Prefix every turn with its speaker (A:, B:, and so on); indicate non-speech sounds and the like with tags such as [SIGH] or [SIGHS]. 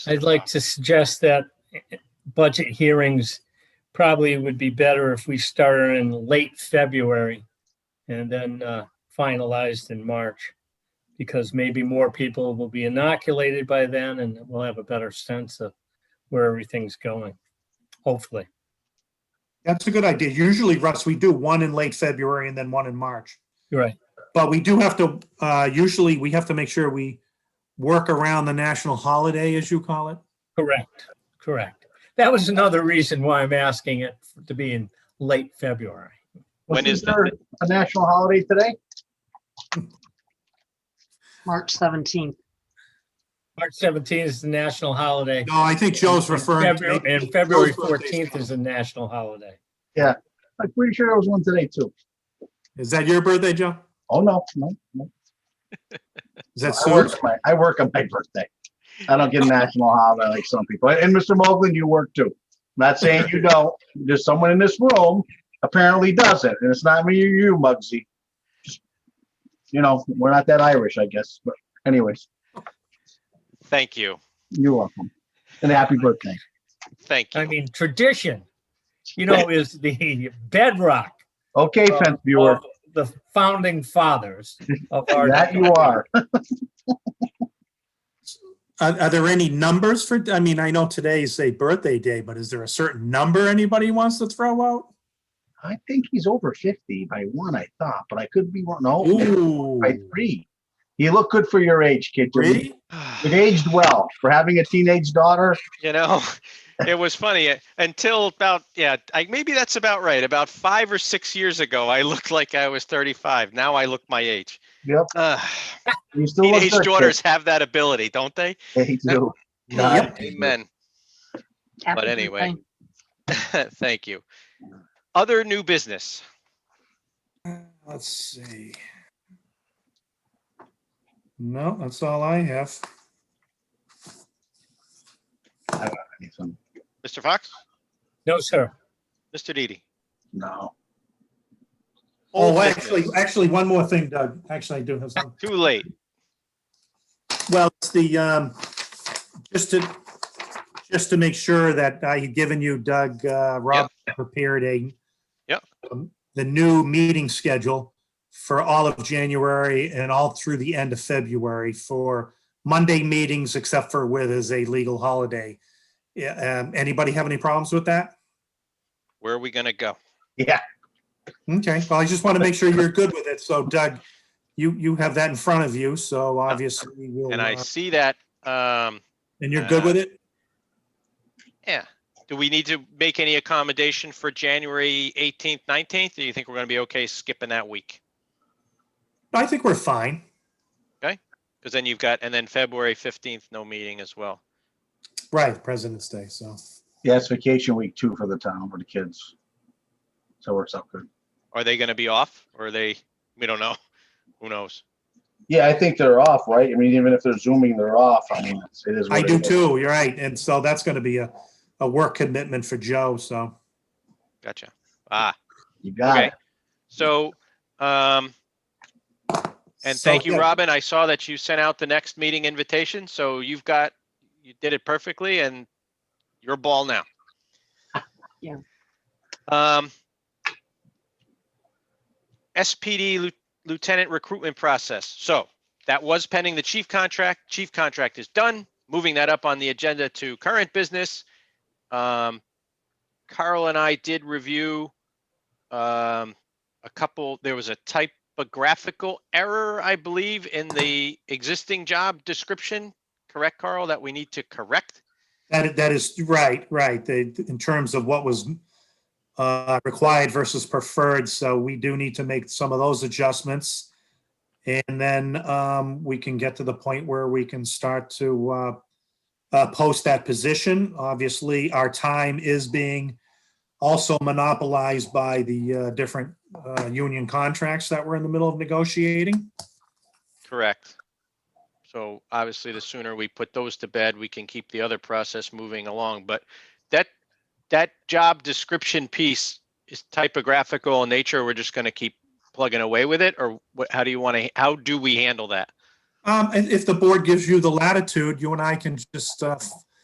A: I'd
B: Uh,
A: like to suggest that budget hearings probably would be better if we started in late February and then uh, finalized in March, because maybe more people will be inoculated by then and we'll have a better sense of where everything's going, hopefully.
C: That's a good idea. Usually, Russ, we do one in late February and then one in March.
A: You're right.
C: But we do have to, uh, usually we have to make sure we work around the national holiday, as you call it.
A: Correct, correct. That was another reason why I'm asking it to be in late February.
B: When is the-
D: Wasn't there A national holiday today?
E: March 17th.
A: March 17th is the national holiday.
C: No, I think Joe's referring to.
A: February- And February 14th is a national holiday.
D: I'm pretty sure there was one today too.
C: Is that your birthday, Joe?
D: Oh, no, no, no.
C: Is that
D: I
C: Sue's?
D: work my, I work on my birthday. I don't get a national holiday like some people. And Mr. Mogul, you work too. I'm Not saying you don't. There's someone in this room apparently doesn't, and it's not me or you, Muggsy. Just, You know, we're not that Irish, I guess. But anyways,
B: Thank you.
D: you're welcome. And happy birthday.
B: Thank
A: I
B: you.
A: mean, tradition, you know, is the bedrock
D: Okay,
A: Oh,
D: fence viewer,
A: of the founding fathers of our.
D: [LAUGHS] that you are.
C: Are, are there any numbers for, I mean, I know today is a birthday day, but is there a certain number anybody wants to throw out?
D: I think he's over 50 by one, I thought, but I could be wrong.
C: Oh,
D: No.
C: Ooh,
D: by three. You look good for your age, kid. You're-
C: Hmm. really?
D: You've aged well for having a teenage daughter.
B: [SIGHS] You know, [LAUGHS] it was funny uh, until about, yeah, I, maybe that's about right. About five or six years ago, I looked like I was 35. Now I look my age. [SIGHS]
D: Yep.
B: Ugh,
D: You still look
B: Teenage
D: good, kid.
B: daughters have that ability, don't they?
D: [LAUGHS] They do. God, they do.
B: Amen. [LAUGHS]
E: Happy
B: anyway.
E: birthday.
B: Thank you. Other new business.
C: Uh, Let's see. No, that's all I have.
B: Mr. Fox?
A: No, sir.
B: Mr. Didi?
D: No.
C: Oh,
B: Old
C: actually,
B: business.
C: actually, one more thing, Doug. Actually, I do have some.
B: Too late.
C: Well, it's the, um, just to, just to make sure that I had given you, Doug, uh, Rob prepared a.
B: Yep.
C: um, The new meeting schedule for all of January and all through the end of February for Monday meetings, except for where there's a legal holiday. Yeah, um, anybody have any problems with that?
B: Where are we going to go?
C: Okay, well, I just want to make sure you're good with it. So Doug, you, you have that in front of you, so obviously we'll,
B: And I
C: uh,
B: see that, um,
C: and you're good with it?
B: yeah. Do we need to make any accommodation for January 18th, 19th? Do you think we're going to be okay skipping that week?
C: I think we're fine.
B: Because then you've got, and then February 15th, no meeting as well.
C: Right, President's Day, so.
D: Yeah, it's vacation week too for the town, for the kids. So it works out good.
B: Are they going to be off or are they, we don't know. Who knows?
D: Yeah, I think they're off, right? I mean, even if they're zooming, they're off. I mean, it's- it is.
C: I
D: what it
C: do
D: is.
C: too, you're right. And so that's going to be a, a work commitment for Joe, so.
B: Gotcha. Ah,
D: You got
B: Okay.
D: it.
B: so, um, and
C: So,
B: thank you,
C: yeah,
B: Robin. I saw that you sent out the next meeting invitation. So you've got, you did it perfectly and your ball now.
E: Yeah.
B: Um, SPD lieu- lieutenant recruitment process. So that was pending the chief contract. Chief contract is done. Moving that up on the agenda to current business. Um, Carl and I did review um, a couple, there was a typographical error, I believe, in the existing job description. Correct, Carl, that we need to correct?
C: That, that is, right, right, They in terms of what was uh, required versus preferred, so we do need to make some of those adjustments. And then um, we can get to the point where we can start to uh, uh, post that position. Obviously, our time is being also monopolized by the uh, different uh, union contracts that we're in the middle of negotiating.
B: Correct. So obviously, the sooner we put those to bed, we can keep the other process moving along. But that, that job description piece is typographical in nature. We're just going to keep plugging away with it or what, how do you want to, how do we handle that?
C: Um, and if the board gives you the latitude, you and I can just uh, f-